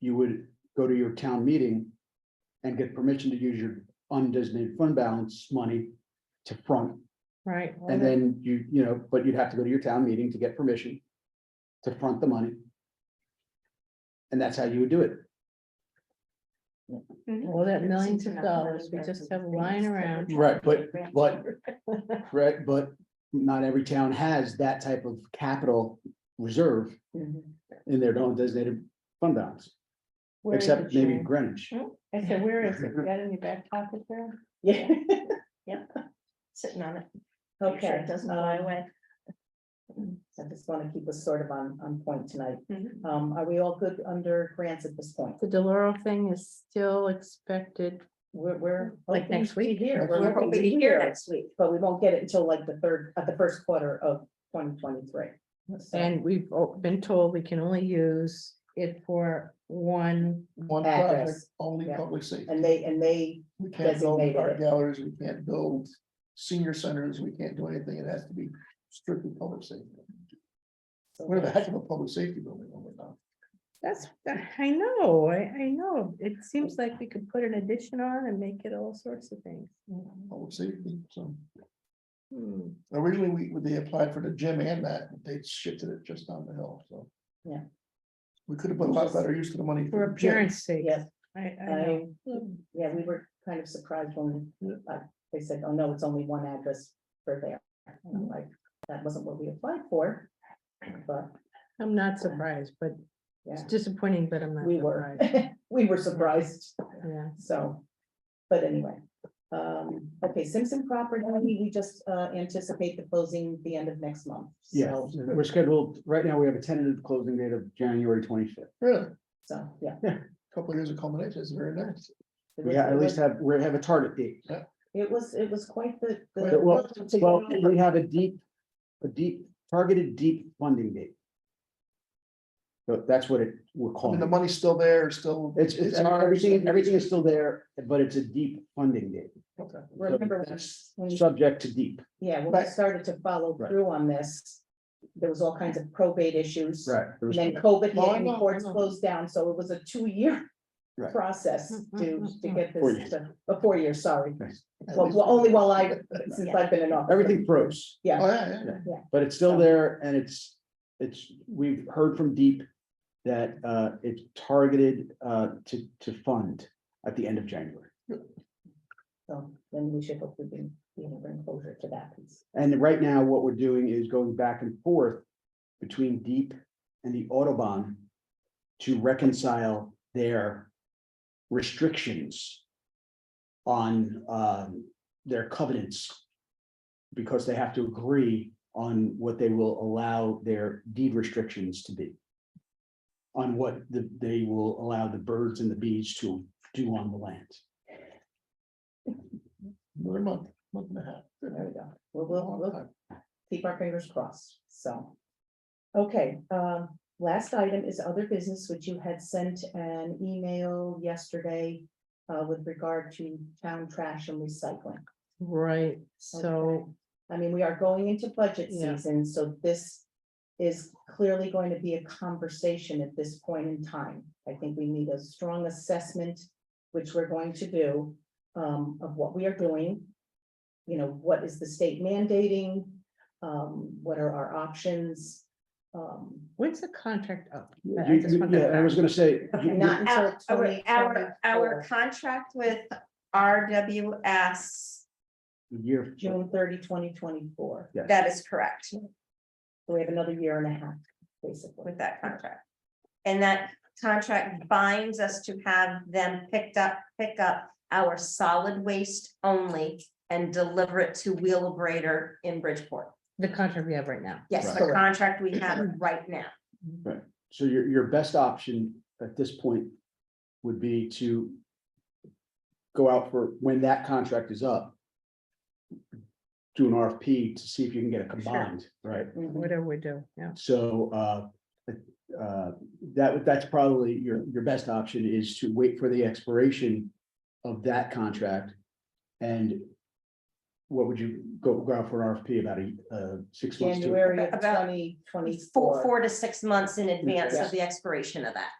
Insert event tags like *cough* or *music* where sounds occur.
you would go to your town meeting and get permission to use your undesignated fund balance money to front, right? and then you, you know, but you'd have to go to your town meeting to get permission to front the money. And that's how you would do it. All that millions of dollars we just have lying around. Right, but- but- Right, but not every town has that type of capital reserve Mm-hmm. in their own designated fund balance, Where is except it, maybe Sharon? Greenwich. I said, where is it? You Got it in your back pocket there? Yeah, *laughs* Sitting on it. Make sure okay. It doesn't fly um, away. *laughs* I just want to keep us sort of on, on point tonight. Mhm. Um, are we all good under grants at this point? The Deloro thing is still expected. We're, we're. Like hoping next to week? hear. We're hoping to hear next week. But we won't get it until like the third, at the first quarter of twenty twenty-three. And we've o- been told we can only use it for one, One Address. project, only Yeah. public safety. And they, and they, We can't build designated art it. galleries, we can't build senior centers, we can't do anything. It has to be strictly public safety. We're the heck of a public safety building oh when we're not. that's, I know, I, I know. It seems like we could put an addition on and make it all sorts of things. Mm-hmm. Public safety, so. Hmm. Originally, we, when they applied for the gym and that, they shifted it just down the hill, so. Yeah. We could have put a lot better use to the money. For the gym. appearance sake. yes, I, I know. I, yeah, we were kind of surprised when, uh, they said, oh, no, it's only one address for there. And Mm-hmm. I'm Like, that wasn't what we applied for, but, I'm not surprised, but it's yeah, disappointing, but I'm not we were, surprised. *laughs* we were surprised. Yeah. So, but anyway, um, okay, Simpson property, we just uh anticipate the closing the end of next month. Yeah, So, we're scheduled, right now, we have a tentative closing date of January twenty-fifth. Really, so, yeah. a couple of years of culmination is very nice. It We was- have, it at least was- have, we have a target date. It was, it was quite the, But the, Well, well, we have a deep, a deep, targeted deep funding date. So that's what it, we're I mean, calling the it. money's still there, still. Oh. It's, it's, ours. everything, everything is still there, but it's a deep funding date. Okay. remember, when- That's when, Subject to deep. yeah, when Right. we started to follow Right. through on this, there was all kinds of probate issues. There And was- then COVID No, I hit and know, I courts know. closed down, so it was a two-year Right. process Mm, to, mm, to mm, get Four this, years. to- uh, four years, sorry. At Well, least- well, only while I, Oh, since I've been in office. Everything froze, Yeah. yeah, yeah. but it's still there and it's, it's, we've heard from deep that uh, it's targeted uh, to, to fund at the end of January. So then we should hopefully be, you know, bring closure to that piece. And right now, what we're doing is going back and forth between Deep and the Autobahn to reconcile their restrictions on um, their covenants. Because they have to agree on what they will allow their deed restrictions to be. On what the- they will allow the birds and the bees to do on the land. Another month, month and a half. Good. There we go. We'll, we'll, Long we'll time. keep our fingers crossed, so. Okay, um, last item is other business, which you had sent an email yesterday uh, with regard to town trash and recycling. Right, so, I mean, we are going into budget Yeah. season, so this is clearly going to be a conversation at this point in time. I think we need a strong assessment, which we're going to do, um, of what we are doing. You know, what is the state mandating? Um, what are our options? Um, when's the contract up? I- I You- just you- want to- Yeah, I was gonna say. you- you- not until Our- Our, our, 2024. our contract with RWS, Year. June 30, 2024. Yes. that is correct So we have another year and a half, basically. with that contract. And that contract binds us to have them picked up, pick up our solid waste only and deliver it to Wheelabrator in Bridgeport. The contract we have right now. Yes, the Right. contract we have right now. So your, your best option at this point would be to go out for, when that contract is up, do an RFP to see if you can get it combined, right? Mhm. Whatever we do, yeah. So uh, uh, that, that's probably your, your best option is to wait for the expiration of that contract. And what would you go, go out for an RFP about a, uh, six months? to- January of About- twenty Four, twenty-four. four to six months in advance of the expiration of that.